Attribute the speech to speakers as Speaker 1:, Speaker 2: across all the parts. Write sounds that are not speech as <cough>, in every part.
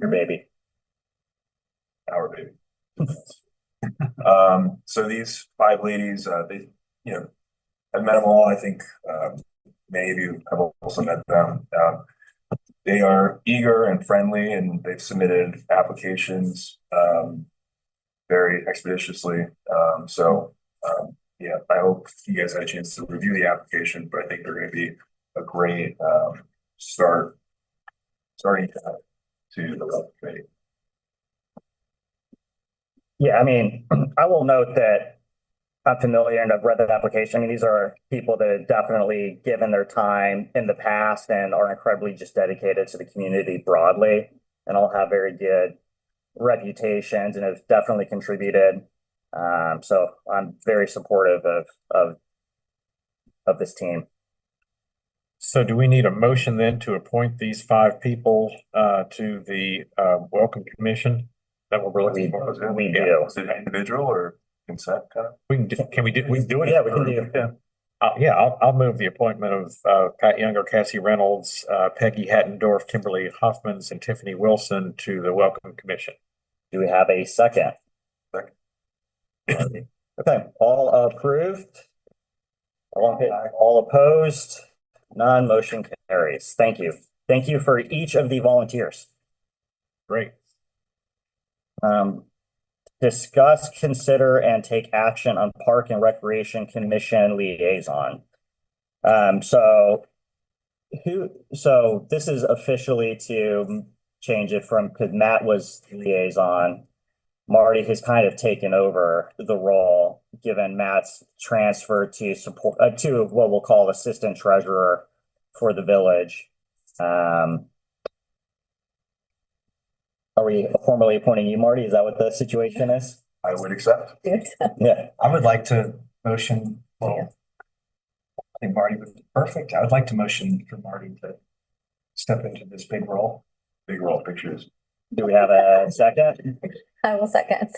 Speaker 1: Your baby. Our baby. Um, so these five ladies, uh, they, you know, I've met them all. I think, um, many of you have also met them. Um, they are eager and friendly and they've submitted applications, um, very expeditiously. Um, so, um, yeah, I hope you guys had a chance to review the application, but I think they're gonna be a great, um, start, starting uh, to the rec committee.
Speaker 2: Yeah, I mean, <clears throat> I will note that I'm familiar and I've read that application. I mean, these are people that have definitely given their time in the past and are incredibly just dedicated to the community broadly and all have very good reputations and have definitely contributed. Um, so I'm very supportive of, of, of this team.
Speaker 3: So do we need a motion then to appoint these five people uh to the uh welcome commission? That what we're looking for?
Speaker 2: We
Speaker 3: Yeah.
Speaker 2: do.
Speaker 1: Is it individual or consent kind of?
Speaker 3: We can, do- can we do, we can do it?
Speaker 2: Yeah, we can do.
Speaker 3: Yeah. Uh, yeah, I'll, I'll move the appointment of uh Pat Younger, Cassie Reynolds, uh Peggy Hattendorf, Kimberly Hoffmans, and Tiffany Wilson to the welcome commission.
Speaker 2: Do we have a second?
Speaker 1: Second.
Speaker 2: Okay, all approved? All in- All opposed? None, motion carries. Thank you. Thank you for each of the volunteers.
Speaker 3: Great.
Speaker 2: Um, discuss, consider, and take action on Park and Recreation Commission liaison. Um, so who, so this is officially to change it from, because Matt was liaison. Marty has kind of taken over the role, given Matt's transfer to support, uh, to what we'll call assistant treasurer for the village. Um, are we formally appointing you, Marty? Is that what the situation is?
Speaker 1: I would accept.
Speaker 4: <laughs>
Speaker 2: Yeah,
Speaker 5: I would like to motion, well, I think Marty would be perfect. I would like to motion for Marty to step into this big role.
Speaker 1: Big roll pictures.
Speaker 2: do we have a second?
Speaker 4: I will second.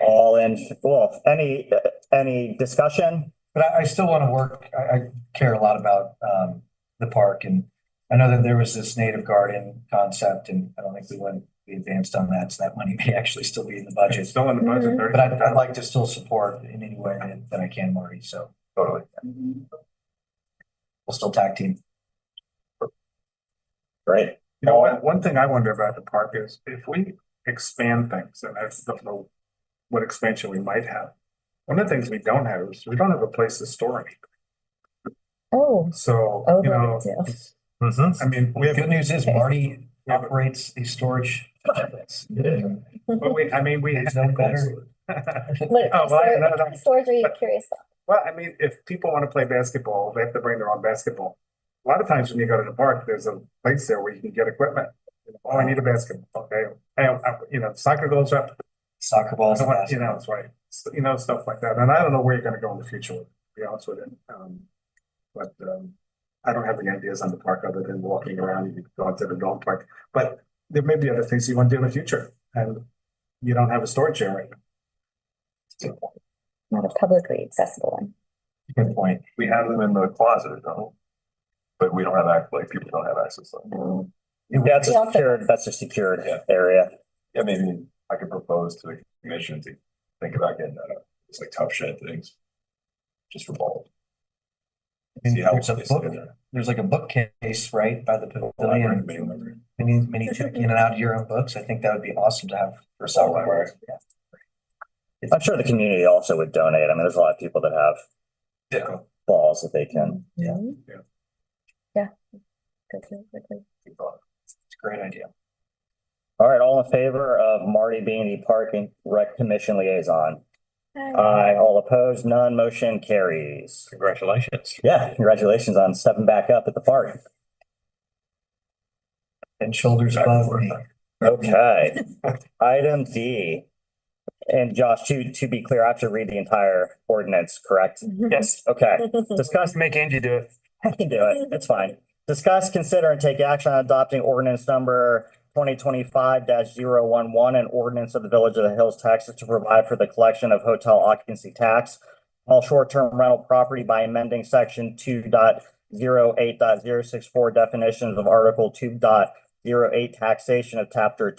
Speaker 2: All in, well, any, any discussion?
Speaker 5: But I, I still want to work, I, I care a lot about, um, the park and I know that there was this native garden concept and I don't think we went, we advanced on that, so that money <laughs> may actually still be in the budget. Mm-hmm.
Speaker 1: still in the budget.
Speaker 5: But I'd, I'd like to still support in any way that, that I can, Marty, so
Speaker 1: Totally.
Speaker 5: we'll still tag team.
Speaker 2: Great.
Speaker 6: You know, one, one thing I wonder about the park is if we expand things, and I don't know what expansion we might have. One of the things we don't have is we don't have a place to store anything.
Speaker 4: Oh,
Speaker 6: So,
Speaker 4: oh,
Speaker 6: you know,
Speaker 4: too.
Speaker 2: Mm-hmm.
Speaker 3: Mhm.
Speaker 6: I mean, we
Speaker 5: The
Speaker 6: have,
Speaker 5: good news is Marty
Speaker 6: we have-
Speaker 5: operates these storage. facilities.
Speaker 6: but we, I mean, we.
Speaker 5: There's no better.
Speaker 4: <laughs> What,
Speaker 6: Oh, well, I- no, no.
Speaker 4: what storage are you
Speaker 6: But-
Speaker 4: curious about?
Speaker 6: <laughs> Well, I mean, if people want to play basketball, they have to bring their own basketball. A lot of times when you go to the park, there's a place there where you can get equipment. You know, Oh, I need a basketball, okay, I, I, you know, soccer goes up,
Speaker 5: Soccer
Speaker 6: I
Speaker 5: balls.
Speaker 6: don't want- You know, it's right, S- you know, stuff like that, and I don't know where you're gonna go in the future, to be honest with you, um. But, um, I don't have any ideas on the park other than walking around, you could go out to the dog park, but there may be other things you wanna do in the future, and. You don't have a storage area,
Speaker 4: Not a publicly accessible one.
Speaker 5: Good point.
Speaker 1: We have them in the closet, don't we? But we don't have, act- like, people don't have access to them.
Speaker 4: No.
Speaker 2: That's
Speaker 4: Yeah,
Speaker 2: a
Speaker 4: I'll
Speaker 2: secured, that's a secured area.
Speaker 1: Yeah, maybe I could propose to the commission to think about getting that, up. it's like tough shed things. Just for ball.
Speaker 5: I mean,
Speaker 1: See how
Speaker 5: there's a
Speaker 1: they sit
Speaker 5: book-
Speaker 1: in there.
Speaker 5: There's like a bookcase, right, by the
Speaker 6: Oh,
Speaker 1: Library,
Speaker 5: pavilion.
Speaker 1: maybe, library.
Speaker 5: Many, many check in and out of your own books. I think that would be awesome to have for sale.
Speaker 1: Library.
Speaker 5: Yeah.
Speaker 2: I'm sure the community also would donate. I mean, there's a lot of people that have
Speaker 1: Yeah.
Speaker 2: balls that they can.
Speaker 5: Yeah.
Speaker 4: Mhm.
Speaker 1: Yeah.
Speaker 4: Yeah. Go through quickly.
Speaker 1: good thought.
Speaker 5: It's a great idea.
Speaker 2: All right, all in favor of Marty being the Park and Rec Commission liaison?
Speaker 4: Hi.
Speaker 2: Aye, all opposed, none, motion carries.
Speaker 3: Congratulations.
Speaker 2: Yeah, congratulations on stepping back up at the park.
Speaker 5: And shoulders above me.
Speaker 2: Okay, item D. And Josh, to, to be clear, I have to read the entire ordinance, correct?
Speaker 6: Uh,
Speaker 4: <laughs>
Speaker 3: Yes.
Speaker 2: Okay, discuss,
Speaker 3: Make Angie do
Speaker 2: <laughs>
Speaker 3: it.
Speaker 2: I can do it, it's fine. Discuss, consider, and take action on adopting ordinance number twenty twenty-five 11 an ordinance of the Village of the Hills, Texas to provide for the collection of hotel occupancy tax all short-term rental property by amending section two dot zero eight dot zero six four definitions of article two dot zero eight taxation of chapter